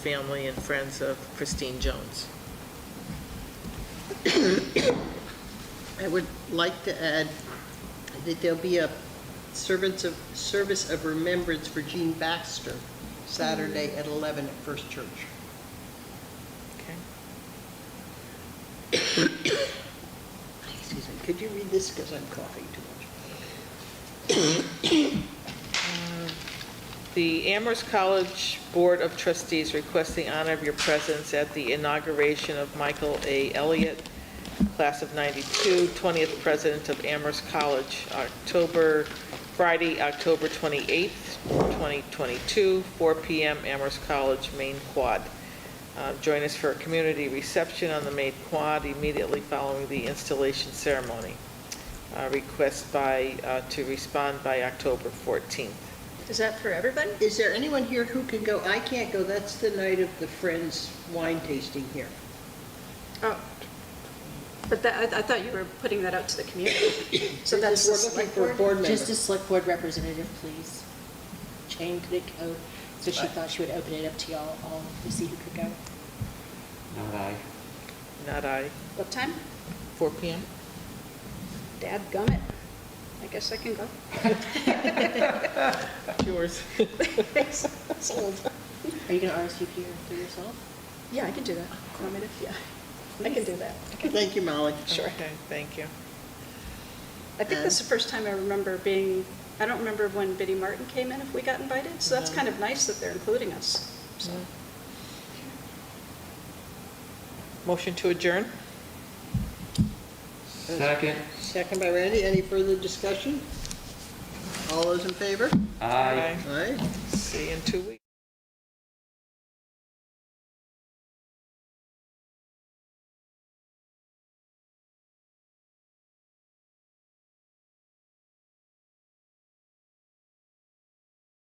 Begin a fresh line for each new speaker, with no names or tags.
family and friends of Christine Jones.
I would like to add that there'll be a servants of, service of remembrance for Jean Baxter Saturday at 11 at First Church.
Okay.
Excuse me, could you read this, because I'm coughing too much?
Uh, The Amherst College Board of Trustees requests the honor of your presence at the inauguration of Michael A. Elliott, class of 92, 20th president of Amherst College, October, Friday, October 28th, 2022, 4 PM, Amherst College, Main Quad. Uh, Join us for a community reception on the Main Quad immediately following the installation ceremony. Uh, Request by, uh, to respond by October 14th.
Is that for everybody?
Is there anyone here who can go? I can't go, that's the night of the Friends wine tasting here.
Oh. But that, I, I thought you were putting that out to the community. So that's the
We're looking
select
for a
board?
board member.
Just a select board representative, please. Change the code, so she thought she would open it up to y'all all to see who could go.
Not I.
Not I.
What time?
4 PM?
Dad gummit. I guess I can go.
Yours.
Thanks. It's old.
Are you gonna RSVP her for yourself?
Yeah, I can do that. Affirmative, yeah. I can do that.
Thank you, Molly.
Sure.
Okay, thank you.
I think that's the
Um,
first time I remember being, I don't remember when Biddy Martin came in, if we got invited, so that's
No.
kind of nice that they're including us. So,
Motion to adjourn?
Second,
Second by Randy, any further discussion? All those in favor?
aye.
Aye.
Aye. See you in two weeks.